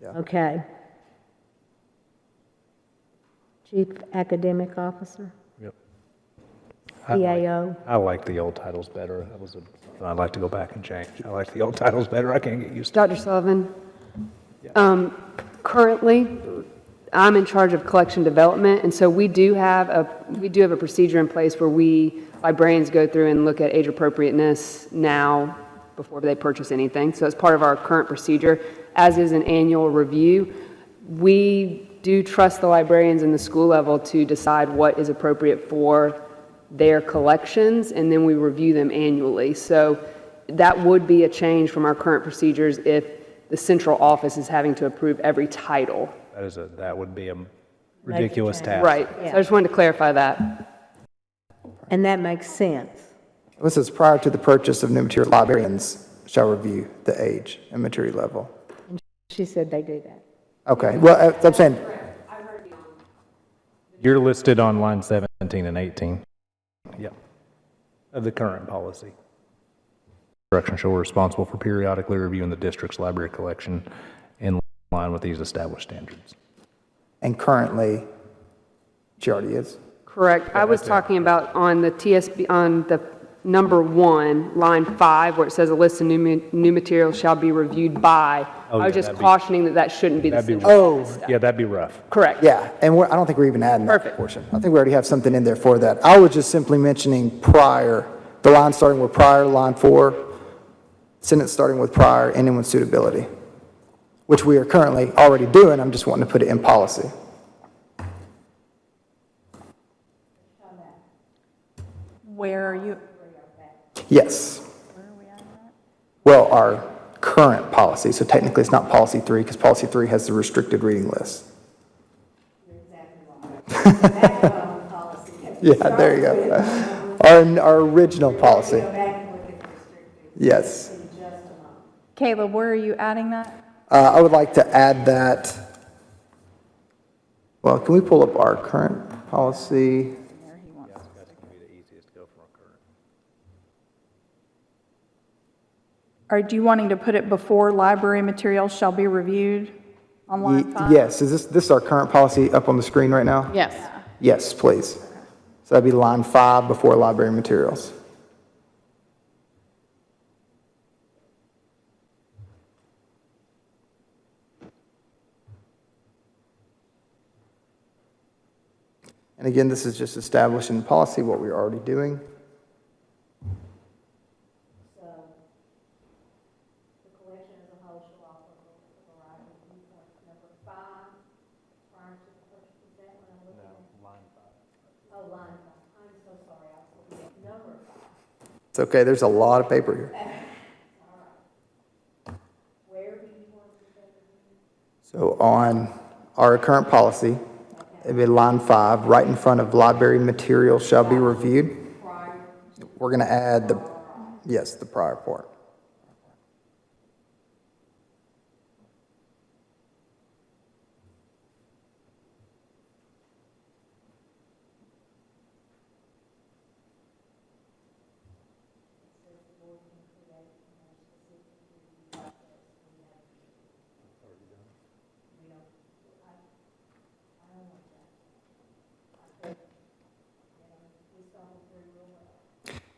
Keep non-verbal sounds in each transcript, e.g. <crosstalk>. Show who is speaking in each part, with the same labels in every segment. Speaker 1: Yeah.
Speaker 2: Okay. Chief Academic Officer,
Speaker 3: Yep. I like-
Speaker 2: CAO.
Speaker 3: I like the old titles better. That was a, I'd like to go back and change. I like the old titles better. I can't get used to
Speaker 4: Dr. Sullivan, um, currently, I'm in charge of collection development, and so we do have a, we do have a procedure in place where we, librarians go through and look at age appropriateness now before they purchase anything. So it's part of our current procedure, as is an annual review. We do trust the librarians in the school level to decide what is appropriate for their collections, and then we review them annually. So that would be a change from our current procedures if the central office is having to approve every title.
Speaker 3: That is a, that would be a ridiculous
Speaker 2: change.
Speaker 3: task.
Speaker 4: Right. So I just wanted to clarify that.
Speaker 2: And that makes sense.
Speaker 1: This is prior to the purchase of new material, librarians shall review the age and maturity level.
Speaker 2: She said they do that.
Speaker 1: Okay, well, uh, I'm saying,
Speaker 5: You're listed on line 17 and 18.
Speaker 3: Yeah. Of the current policy.
Speaker 5: Direction shall be responsible for periodically reviewing the district's library collection in line with these established standards.
Speaker 1: and currently, she already is.
Speaker 4: Correct. I was talking about on the TSB, on the number one, line five, where it says a list of new, ma- new materials shall be reviewed by. I
Speaker 3: Oh, yeah,
Speaker 4: was just
Speaker 3: that'd be-
Speaker 4: cautioning that that shouldn't be the
Speaker 3: That'd be
Speaker 4: central.
Speaker 1: Oh,
Speaker 3: Yeah, that'd be rough.
Speaker 4: Correct.
Speaker 1: yeah, and we're, I don't think we're even adding that
Speaker 4: Perfect.
Speaker 1: portion. I think we already have something in there for that. I was just simply mentioning prior, the line starting with prior, line four, sentence starting with prior, ending with suitability, which we are currently already doing, I'm just wanting to put it in policy.
Speaker 6: Where are you?
Speaker 1: Yes. Well, our current policy, so technically it's not policy three, because policy three has the restricted reading list. <laughs> Yeah, there you go. <laughs> Our, our original policy. Yes.
Speaker 6: Caleb, where are you adding that?
Speaker 1: Uh, I would like to add that, well, can we pull up our current policy?
Speaker 6: Are you wanting to put it before library materials shall be reviewed on line
Speaker 1: Ye-
Speaker 6: five?
Speaker 1: Yes, is this, this is our current policy up on the screen right now?
Speaker 7: Yes.
Speaker 1: Yes, please. So that'd be line five before library materials. And again, this is just establishing policy, what we're already doing. It's okay, there's a lot of paper here. So on our current policy, it'd be line five, right in front of library material shall be reviewed. We're gonna add the, yes, the prior part.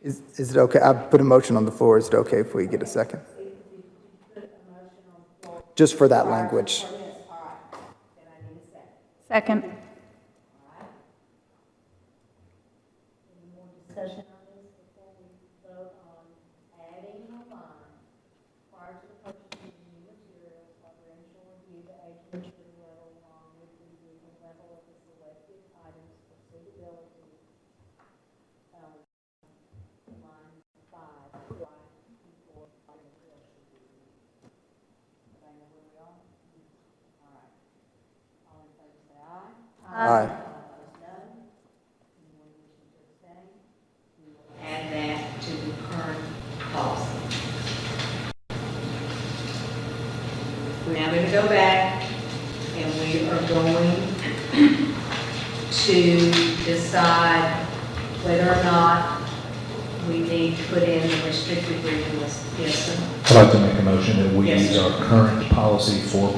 Speaker 1: Is, is it okay, I put a motion on the floor, is it okay if we get a second? Just for that language.
Speaker 6: Second.
Speaker 1: Aye.
Speaker 8: add that to the current policy. We're now going to go back and we are going to decide whether or not we need to put in the restricted reading list. Yes, sir?
Speaker 5: I'd like to make a motion that we
Speaker 8: Yes.
Speaker 5: use our current policy for